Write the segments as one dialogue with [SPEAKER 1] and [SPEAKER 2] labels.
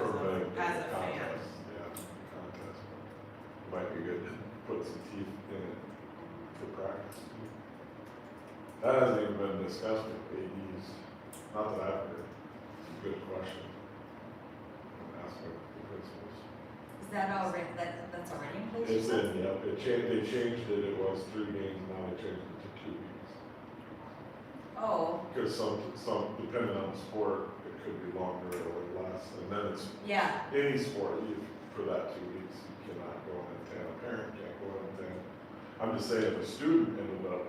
[SPEAKER 1] As a fan.
[SPEAKER 2] contest, Yeah, contest. Might be good to put some teeth in it for practice. too. That hasn't even been discussed with ADs, not that I've heard. It's a good question. And Ask what the principals.
[SPEAKER 3] Is that already, that, that's already in place? you
[SPEAKER 2] It's
[SPEAKER 3] said?
[SPEAKER 2] in, yep, it changed, they changed it, it was three games, now they changed it to two games.
[SPEAKER 3] Oh,
[SPEAKER 2] Because some, some, depending on the sport, it could be longer or less, and then it's
[SPEAKER 3] yeah,
[SPEAKER 2] any sport, you, for that two weeks, you cannot go on a tan, a parent can't go on a tan. I'm just saying, if a student ended up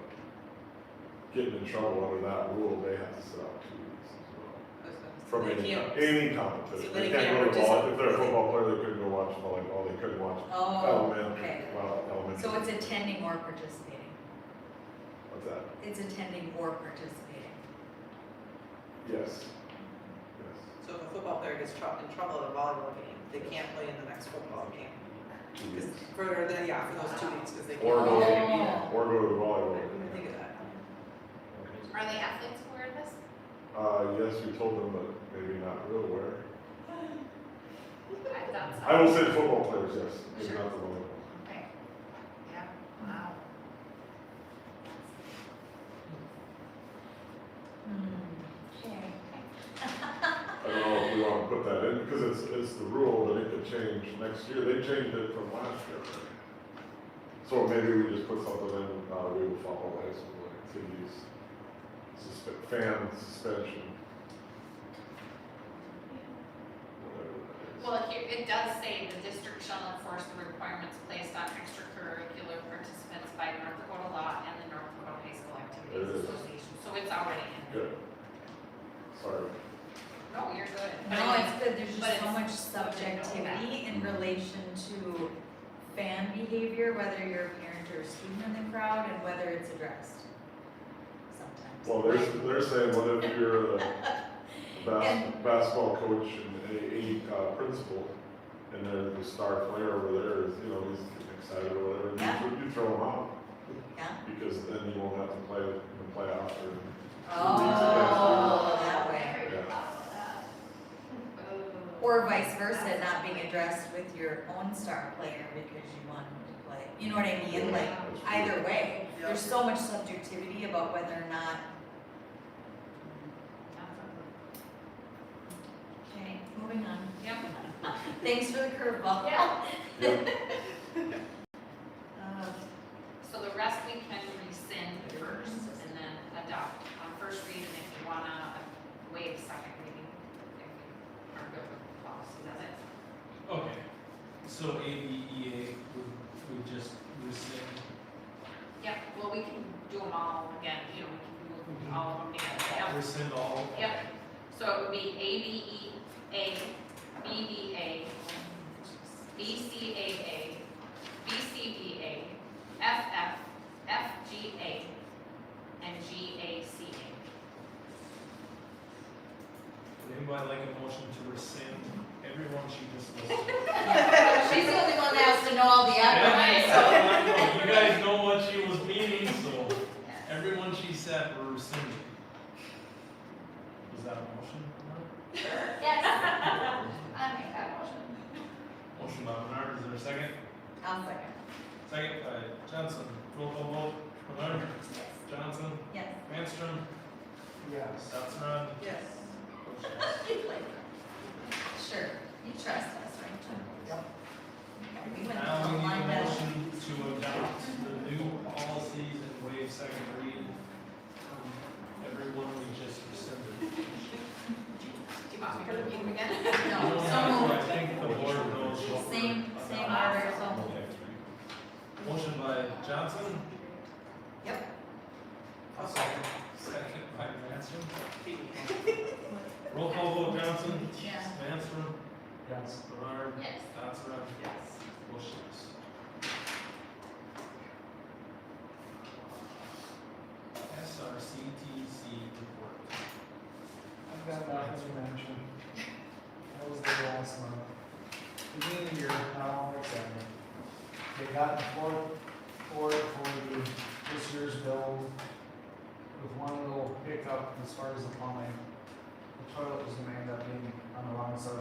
[SPEAKER 2] getting in trouble under that rule, they have to sit out two weeks as well. From
[SPEAKER 1] They
[SPEAKER 2] any,
[SPEAKER 1] can't-
[SPEAKER 2] any
[SPEAKER 1] So
[SPEAKER 2] competition,
[SPEAKER 1] they
[SPEAKER 2] they can't go
[SPEAKER 1] can't
[SPEAKER 2] to ball,
[SPEAKER 1] participate.
[SPEAKER 2] if they're a football player, they couldn't go watch volleyball, they couldn't watch
[SPEAKER 3] oh, okay.
[SPEAKER 2] elementary, well, elementary.
[SPEAKER 3] So it's attending or participating?
[SPEAKER 2] What's that?
[SPEAKER 3] It's attending or participating.
[SPEAKER 2] Yes.
[SPEAKER 1] So if a football player gets trou- in trouble at a volleyball game, they can't play in the next football game.
[SPEAKER 2] Yes, two
[SPEAKER 1] 'Cause
[SPEAKER 2] weeks.
[SPEAKER 1] For, the- yeah, for those two weeks, because they can't.
[SPEAKER 2] Or
[SPEAKER 3] go-
[SPEAKER 1] Yeah.
[SPEAKER 2] Or go to volleyball.
[SPEAKER 1] I didn't think of that.
[SPEAKER 4] Are the athletes aware of this?
[SPEAKER 2] Uh, yes, we told them, but maybe not real aware.
[SPEAKER 4] I thought so.
[SPEAKER 2] I will say football players, yes, maybe not the volleyball.
[SPEAKER 4] Okay. Yeah, wow. Hmm.
[SPEAKER 3] Okay.
[SPEAKER 2] I don't know if we want to put that in, because it's, it's the rule that it could change next year, they changed it from last year. So maybe we just put something in, uh, we will follow high school activities, suspe- fan suspension. Whatever that is.
[SPEAKER 4] Well, here, it does say the district shall enforce the requirements placed on extracurricular participants by North Dakota law and the North Dakota High School
[SPEAKER 2] There it is.
[SPEAKER 4] Activities Association, so it's already in.
[SPEAKER 2] Good. Sorry,
[SPEAKER 4] No, you're good. But
[SPEAKER 3] No,
[SPEAKER 4] anyway,
[SPEAKER 3] it's good, there's
[SPEAKER 4] but
[SPEAKER 3] just so
[SPEAKER 4] it's-
[SPEAKER 3] much
[SPEAKER 4] but they know
[SPEAKER 3] subjectivity in relation to fan behavior, whether you're a parent or a student in the crowd, and whether it's addressed sometimes.
[SPEAKER 2] well, they're, they're saying, what if you're the bas- basketball coach and a, a, uh, principal, and then the star player over there is, you know, he's getting excited or whatever, you
[SPEAKER 3] Yeah.
[SPEAKER 2] throw- you throw him out.
[SPEAKER 3] Yeah?
[SPEAKER 2] Because then you won't have to play in the playoff or.
[SPEAKER 3] Oh, that way.
[SPEAKER 4] Very
[SPEAKER 2] Yeah.
[SPEAKER 4] about that. Ooh.
[SPEAKER 3] Or vice versa, not being addressed with your own star player because you want him to play, you know what I mean, like,
[SPEAKER 2] That's true.
[SPEAKER 3] either way, there's so much subjectivity about whether or not. Okay, moving on.
[SPEAKER 4] Yep.
[SPEAKER 3] Thanks for the curveball.
[SPEAKER 4] Yeah.
[SPEAKER 2] Yep,
[SPEAKER 3] Uh,
[SPEAKER 4] So the rest we can rescind first and then adopt on first reading if you wanna waive second reading. if you Are good with policy, that's it.
[SPEAKER 5] Okay, so ABEA would, would just rescind,
[SPEAKER 4] Yep, well, we can do them all again, you know, we can do
[SPEAKER 5] Mhm.
[SPEAKER 4] all of them together,
[SPEAKER 5] rescind all?
[SPEAKER 4] yep, yep. So it would be E, ABEA, BBA, BCAA, BCBA, FF, FGA, and GACA.
[SPEAKER 5] Would anybody like a motion to rescind everyone she just listed?
[SPEAKER 3] yeah. She's the only one that has to know all the acronyms, so.
[SPEAKER 5] Yeah, I know, You guys know what she was meaning, so everyone she said we're rescinding. Was that a motion?
[SPEAKER 4] Yes. I make Um, that motion.
[SPEAKER 5] Motion by Bernard, is there a second?
[SPEAKER 3] I'll second.
[SPEAKER 5] Second by Johnson, roll call vote, Bernard,
[SPEAKER 3] Yes.
[SPEAKER 5] Johnson,
[SPEAKER 3] Yes.
[SPEAKER 5] Manstrom,
[SPEAKER 6] Yes.
[SPEAKER 5] Stetson.
[SPEAKER 1] Yes.
[SPEAKER 3] Sure, you trust us, right? Jim?
[SPEAKER 6] Yep.
[SPEAKER 3] Okay, we went
[SPEAKER 4] Um,
[SPEAKER 5] Now we
[SPEAKER 3] from
[SPEAKER 5] need
[SPEAKER 3] line
[SPEAKER 5] a
[SPEAKER 3] to-
[SPEAKER 5] motion to adopt the new policies and waive second reading. Everyone we just rescinded.
[SPEAKER 4] Do you want me to read them again?
[SPEAKER 3] No, so
[SPEAKER 5] I
[SPEAKER 3] moved.
[SPEAKER 5] think the board knows what we're
[SPEAKER 3] Same, same
[SPEAKER 5] about.
[SPEAKER 3] order, so moved.
[SPEAKER 5] Motion by Johnson,
[SPEAKER 3] Yep.
[SPEAKER 1] I'll second.
[SPEAKER 5] second by Manstrom. Roll call vote Johnson,
[SPEAKER 3] Yeah.
[SPEAKER 5] Manstrom,
[SPEAKER 6] Yes.
[SPEAKER 5] Bernard,
[SPEAKER 4] Yes.
[SPEAKER 5] Johnson,
[SPEAKER 1] Yes.
[SPEAKER 5] motions. SRCTC report.
[SPEAKER 6] I've got nothing to mention. That was the last month. Beginning of the year, now, December. They got the fourth, fourth for the, this year's bill with one little pickup as far as the plumbing. The toilet was gonna end up being on the wrong side